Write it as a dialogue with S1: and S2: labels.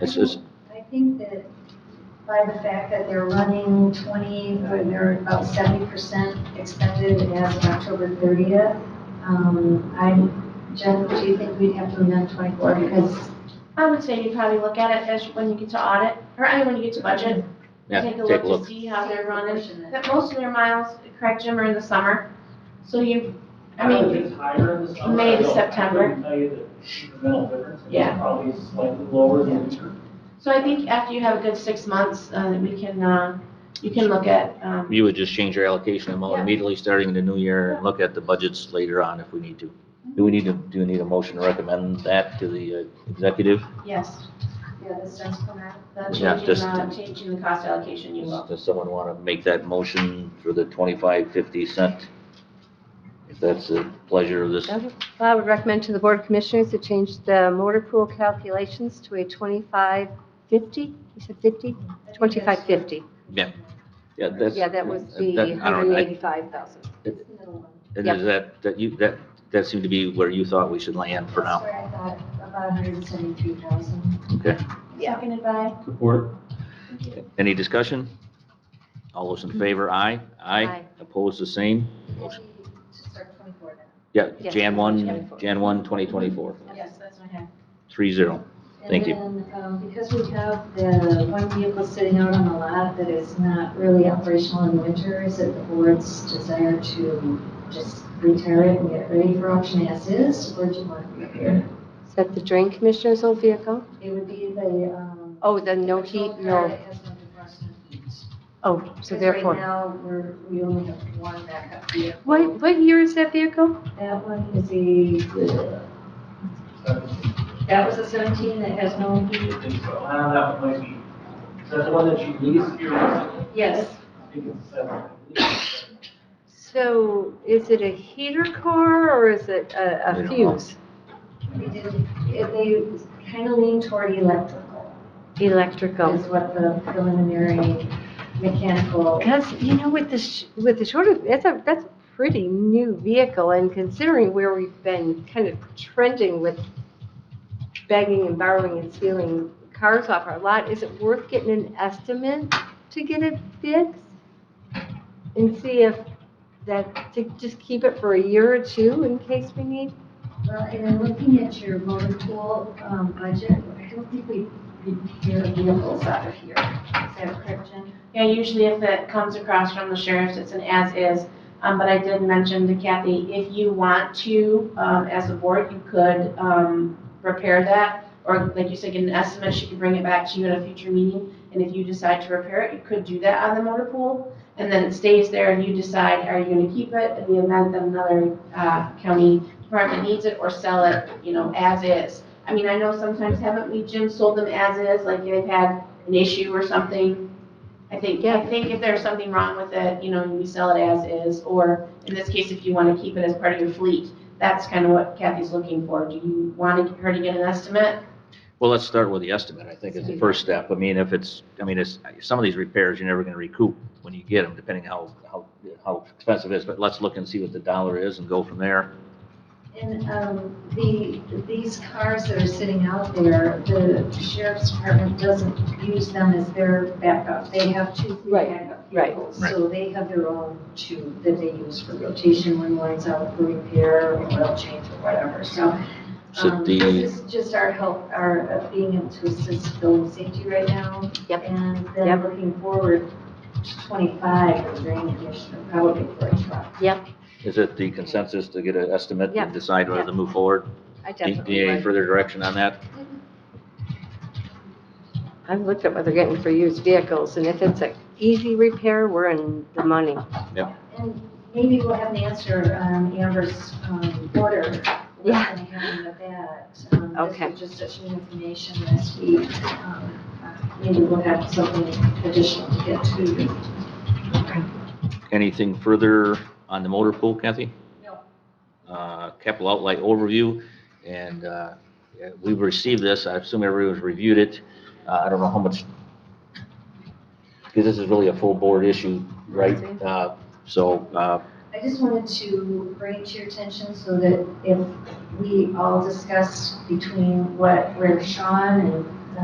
S1: This is,
S2: I think that by the fact that they're running 20, or they're about 70% expended as of October 30th, um, I, Jen, do you think we'd have to amend 24 because
S3: I would say you probably look at it as when you get to audit, or I mean, when you get to budget.
S1: yeah,
S3: Take
S1: take
S3: a look
S1: a
S3: to
S1: look.
S3: see how they're running.
S2: Proportionate.
S3: But most of their miles, correct Jim, are in the summer. So you, I mean,
S4: it's higher in the summer.
S3: May to
S4: I don't-
S3: September.
S4: I couldn't tell you the incremental difference. It's
S3: Yeah.
S4: Probably slightly lower than winter.
S3: so I think after you have a good six months, uh, we can, uh, you can look at, um,
S1: You would just change your allocation amount
S3: Yeah.
S1: immediately starting in the new year and look at the budgets later on if we need to. Do we need to, do we need a motion to recommend that to the uh, executive?
S3: yes,
S2: Yeah, this does come out.
S3: the
S1: Yeah,
S3: changing,
S1: just-
S3: uh, changing the cost allocation, you will.
S1: Does someone want to make that motion for the twenty-five, fifty cent? If that's the pleasure of this,
S5: Well, I would recommend to the Board of Commissioners to change the motor pool calculations to a 2550, you said 50? 2550.
S1: yeah, that's. Uh,
S5: Yeah, that was the
S1: that- I don't- I-
S5: 185,000.
S1: And
S5: Yep.
S1: is that, that you, that, that seemed to be where you thought we should land for
S2: That's
S1: now.
S2: where I thought about 173,000.
S1: Okay.
S3: Seconded by,
S6: Support.
S1: Any discussion? All those in favor, aye.
S5: Aye.
S1: Opposed, the same. Motion.
S2: To start 24 then.
S1: Yeah,
S5: Yes,
S1: Jan 1,
S5: 2024.
S1: Jan 1, 2024,
S3: yes, that's what I have.
S1: 3-0. Thank you.
S2: And then, um, because we have the one vehicle sitting out on the lot that is not really operational in winter, is it the board's desire to just retire it and get it ready for auction as is, or do you want to repair?
S5: Is that the drain commissioner's old vehicle?
S2: it? It would be the, um.
S5: Oh, the no heat,
S2: patrol car
S5: no.
S2: that has no defroster.
S5: Oh, so
S2: Because right
S5: therefore.
S2: now, we're, we only have one backup vehicle.
S5: What, what year is that vehicle?
S2: That one is a, that was a seventeen that has no
S4: I
S2: heat.
S4: think so. Uh, that might be, is that the one that you leased here recently?
S2: Yes.
S4: I think it's seven.
S5: So is it a heater car or is it a
S1: We
S5: a
S1: don't know.
S5: fuse?
S2: We did, it- they kind of lean toward electrical,
S5: Electrical?
S2: is what the preliminary mechanical,
S5: Because, you know, with the, sh- with the shorter, that's a, that's a pretty new vehicle, and considering where we've been kind of trending with begging and borrowing and stealing cars off our lot, is it worth getting an estimate to get it fixed? And see if that, to just keep it for a year or two in case we need?
S2: well, and then looking at your motor pool um, budget, I don't think we repair vehicles out of here. Is that correct, Jen?
S3: Yeah, usually if it comes across from the sheriff's, it's an as-is. Um, but I did mention to Kathy, if you want to, um, as a board, you could, um, repair that. Or like you said, get an estimate, she could bring it back to you at a future meeting. And if you decide to repair it, you could do that on the motor pool. And then it stays there and you decide, are you gonna keep it in the event that another, uh, county department needs it or sell it, you know, as is? I mean, I know sometimes haven't we, Jim, sold them as is, like they've had an issue or something? I think, I
S5: Yeah.
S3: think if there's something wrong with it, you know, we sell it as is, or in this case, if you want to keep it as part of your fleet, that's kind of what Kathy's looking for. Do you want to- her to get an estimate?
S1: Well, let's start with the estimate, I think is the first step. I mean, if it's, I mean, it's, some of these repairs, you're never going to recoup when you get them, depending how, how, how expensive it is. But let's look and see what the dollar is and go from there.
S2: And um, the, these cars that are sitting out there, the sheriff's department doesn't use them as their backup. They have two free
S5: Right,
S2: backup
S5: right.
S2: vehicles.
S1: Right.
S2: So they have their own two that they use for rotation when one's out for repair or oil change or whatever. So
S1: So
S2: um,
S1: the-
S2: this is just our help, our uh, being able to assist building safety right now.
S5: Yep.
S2: And then
S5: Yep.
S2: looking forward to 25, the drain commissioner probably for a truck.
S1: Is it the consensus to get an estimate
S5: Yeah.
S1: and decide whether to move forward?
S5: I
S1: Do you
S5: definitely
S1: need any
S5: would.
S1: further direction on that?
S5: I've looked at what they're getting for used vehicles, and if it's an easy repair, we're in the money.
S2: And maybe we'll have an answer on Amber's um, order. What's
S5: Yeah.
S2: gonna happen with that? Um,
S5: Okay.
S2: This was just such new information this week. Um, uh, Maybe we'll have something additional to get to. you.
S1: Anything further on the motor pool, Kathy?
S2: No.
S1: Uh, Capital outlay overview, and uh, yeah, we received this, I assume everyone's reviewed it. Uh, I don't know how much, because this is really a full board issue, right? Uh, So, uh,
S2: I just wanted to bring to your attention so that if we all discuss between what, where Sean and